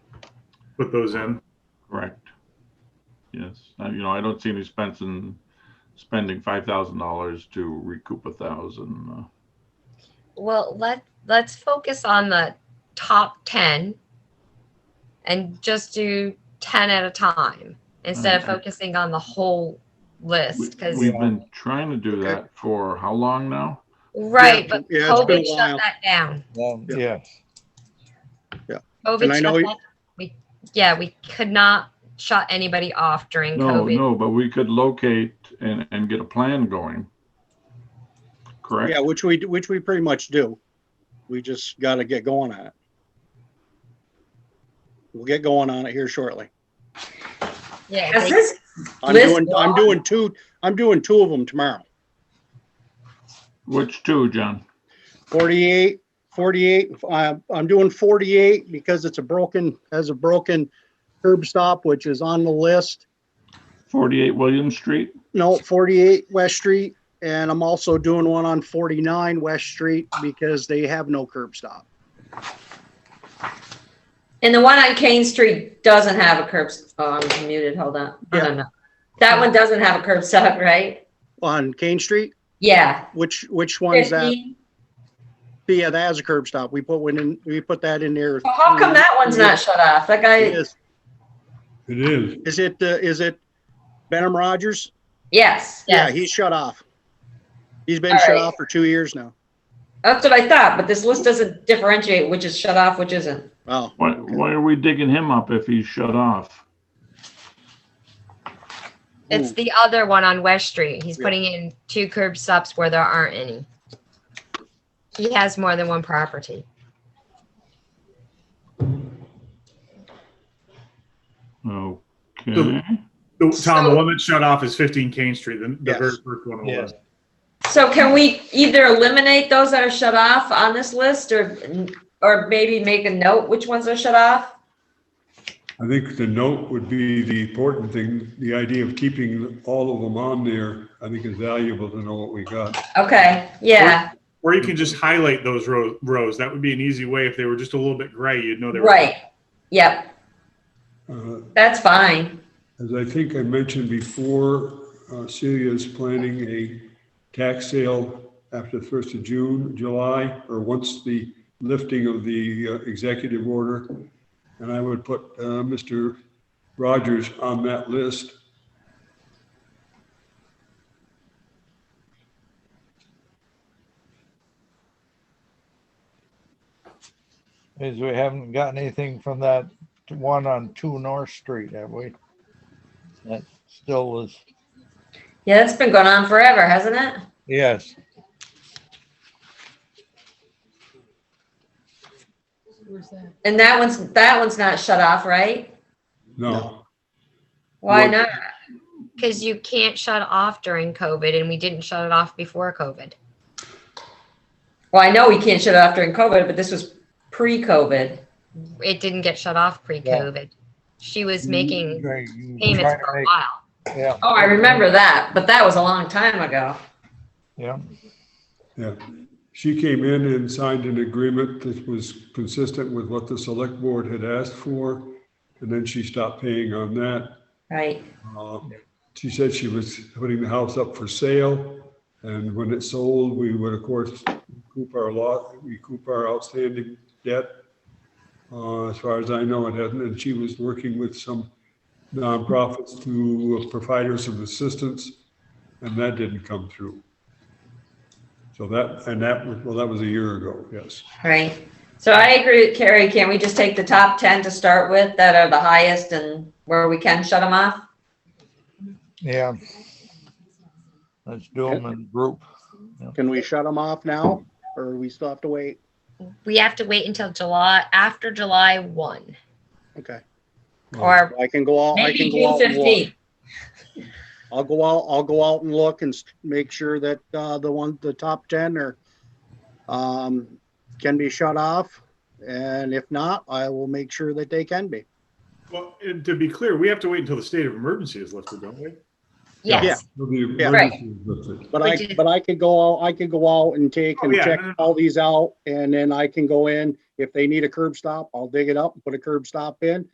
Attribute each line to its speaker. Speaker 1: put those in.
Speaker 2: Correct. Yes, Uh, you know, I don't see any expense in spending five thousand dollars to recoup a thousand.
Speaker 3: Well, let, let's focus on the top 10 and just do 10 at a time instead of
Speaker 2: Okay.
Speaker 3: focusing on the whole list. Because,
Speaker 2: We've been trying to do that for how long now?
Speaker 3: right,
Speaker 1: Yeah,
Speaker 3: but
Speaker 1: yeah, it's been a
Speaker 3: COVID shut
Speaker 1: while.
Speaker 3: that down.
Speaker 4: Um,
Speaker 1: Yeah.
Speaker 4: yeah.
Speaker 1: And
Speaker 3: COVID
Speaker 1: I
Speaker 3: shut
Speaker 1: know-
Speaker 3: that, we, yeah, we could not shut anybody off during
Speaker 2: No,
Speaker 3: COVID.
Speaker 2: no, but we could locate and, and get a plan going. Correct?
Speaker 5: Yeah, which we, which we pretty much do. We just got to get going on it. We'll get going on it here shortly.
Speaker 3: Yeah,
Speaker 6: Does
Speaker 3: they-
Speaker 6: this,
Speaker 5: I'm
Speaker 6: List
Speaker 5: doing, I'm
Speaker 6: one.
Speaker 5: doing two, I'm doing two of them tomorrow.
Speaker 2: Which two, John?
Speaker 5: 48, 48, uh, I'm doing 48 because it's a broken, has a broken curb stop, which is on the list.
Speaker 2: Forty-eight William Street?
Speaker 5: No, 48 West Street, and I'm also doing one on 49 West Street because they have no curb stop.
Speaker 6: and the one on Kane Street doesn't have a curb, s- oh, I'm muted, hold on. I
Speaker 5: Yeah.
Speaker 6: don't know. That one doesn't have a curb stop, right?
Speaker 5: On Kane Street,
Speaker 6: Yeah.
Speaker 5: which, which one's that?
Speaker 6: 15.
Speaker 5: Yeah, that has a curb stop. We put one in, we put that in there.
Speaker 6: Well, How come that one's not shut off? That guy,
Speaker 5: Is
Speaker 7: It is.
Speaker 5: is it, uh, is it Benham Rogers?
Speaker 6: yes,
Speaker 3: Yeah.
Speaker 5: Yeah, he's shut off. He's been
Speaker 6: All
Speaker 5: shut
Speaker 6: right.
Speaker 5: off for two years now.
Speaker 6: that's what I thought, but this list doesn't differentiate which is shut off, which isn't.
Speaker 5: Wow.
Speaker 2: Why, why are we digging him up if he's shut off?
Speaker 3: it's the other one on West Street. He's
Speaker 5: Yeah.
Speaker 3: putting in two curb stops where there aren't any. He has more than one property.
Speaker 2: Okay,
Speaker 1: The- Tom, the one that shut off is 15 Kane Street, the the
Speaker 5: Yes.
Speaker 1: very first one on the
Speaker 4: Yes.
Speaker 1: list.
Speaker 6: So can we either eliminate those that are shut off on this list or, or maybe make a note which ones are shut off?
Speaker 7: I think the note would be the important thing. The idea of keeping all of them on there, I think is valuable to know what we got.
Speaker 6: Okay, yeah,
Speaker 1: Or you can just highlight those row, rows. That would be an easy way. If they were just a little bit gray, you'd know they were.
Speaker 6: right. Yep,
Speaker 7: Uh,
Speaker 6: that's fine.
Speaker 7: As I think I mentioned before, uh, Celia is planning a tax sale after the 1st of June, July, or once the lifting of the uh, executive order. And I would put uh, Mr. Rogers on that list.
Speaker 4: Is we haven't gotten anything from that one on two North Street, have we? That still is,
Speaker 6: Yeah, that's been going on forever, hasn't it?
Speaker 4: yes,
Speaker 6: And that one's, that one's not shut off, right?
Speaker 7: No,
Speaker 6: Why
Speaker 2: Well-
Speaker 6: not?
Speaker 3: Because you can't shut off during COVID, and we didn't shut it off before COVID.
Speaker 6: Well, I know we can't shut it off during COVID, but this was pre-COVID.
Speaker 3: It didn't get shut off pre-COVID. She was making
Speaker 4: Mm-hmm. Right, you
Speaker 3: payments
Speaker 4: try
Speaker 3: for a
Speaker 4: to
Speaker 3: while.
Speaker 4: make- yeah,
Speaker 6: Oh, I remember that, but that was a long time ago.
Speaker 4: yeah.
Speaker 7: yeah. She came in and signed an agreement that was consistent with what the select board had asked for. And then she stopped paying on that.
Speaker 6: Right,
Speaker 7: Uh, She said she was putting the house up for sale, and when it sold, we would, of course, recoup our lot, recoup our outstanding debt. Uh, As far as I know, it hasn't, and she was working with some nonprofits to uh, provide her some assistance, and that didn't come through. So that, and that, was- well, that was a year ago, yes.
Speaker 6: right. So I agree with Carrie. Can we just take the top 10 to start with that are the highest and where we can shut them off?
Speaker 4: Yeah. Let's do them in group.
Speaker 5: Can we shut them off now or we still have to wait?
Speaker 3: We have to wait until July, after July one,
Speaker 5: Okay.
Speaker 3: or
Speaker 5: I can go out, I
Speaker 6: Maybe
Speaker 5: can go
Speaker 6: June
Speaker 5: out and look.
Speaker 6: 15th.
Speaker 5: I'll go out, I'll go out and look and s- make sure that, uh, the one, the top ten are, um, can be shut off. And if not, I will make sure that they can be.
Speaker 1: Well, and to be clear, we have to wait until the state of emergency is lifted, don't we?
Speaker 3: yes,
Speaker 7: So the
Speaker 5: Yeah.
Speaker 6: Right.
Speaker 7: emergency was lifted.
Speaker 5: But
Speaker 3: Which
Speaker 5: I,
Speaker 3: is-
Speaker 5: but I could go out, I could go out and take
Speaker 1: Oh,
Speaker 5: and
Speaker 1: yeah,
Speaker 5: check
Speaker 1: no, no, no.
Speaker 5: all these out and then I can go in. If they need a curb stop, I'll dig it up, and put a curb stop in.